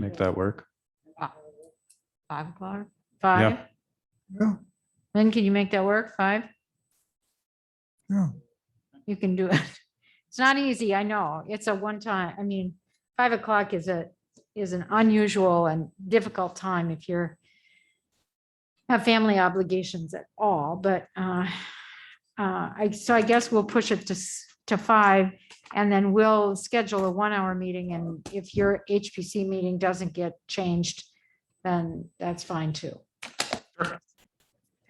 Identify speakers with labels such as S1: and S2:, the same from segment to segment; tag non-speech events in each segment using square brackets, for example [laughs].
S1: make that work.
S2: Five o'clock?
S3: Five?
S4: Yeah,
S3: Lynn, can you make that work? Five?
S4: yeah.
S3: You can do it. [laughs] It's not easy, I know. It's a one time, I mean, five o'clock is a, is an unusual and difficult time if you're have family obligations at all, but uh, uh, I, so I guess we'll push it to, s- to five and then we'll schedule a one hour meeting and if your HPC meeting doesn't get changed, then that's fine too.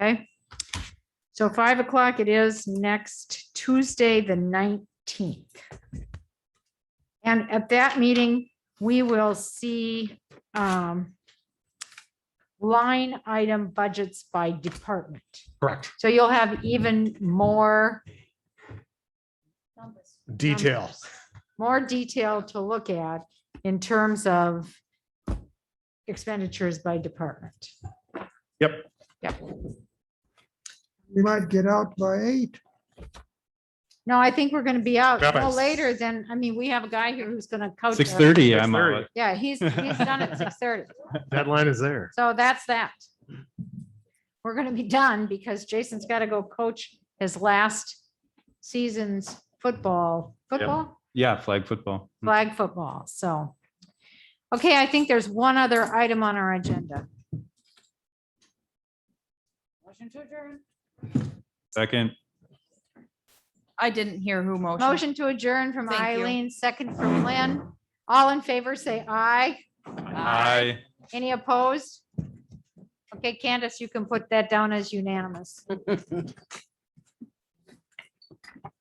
S3: Okay? So five o'clock it is next Tuesday, the nineteenth. And at that meeting, we will see um, line item budgets by department.
S5: Correct.
S3: So you'll have even more
S5: Detail.
S3: numbers, More detail to look at in terms of expenditures by department.
S4: We might get out by eight.
S3: No, I think we're going to be out
S5: Got it.
S3: no later than, I mean, we have a guy here who's going to coach.
S1: Six
S3: us.
S1: thirty, I'm
S5: 6:30.
S1: out. [laughs]
S3: Yeah, he's, he's done at six thirty.
S5: Deadline is there.
S3: So that's that. We're gonna be done because Jason's gotta go coach his last season's football, football,
S1: Yeah, flag football.
S3: flag football, so. Okay, I think there's one other item on our agenda. Motion to adjourn.
S1: Second,
S2: I didn't hear who motioned.
S3: Motion to adjourn from
S2: Thank you.
S3: Eileen, second from Lynn. All in favor, say aye.
S1: aye.
S3: Any opposed? Okay, Candace, you can put that down as unanimous.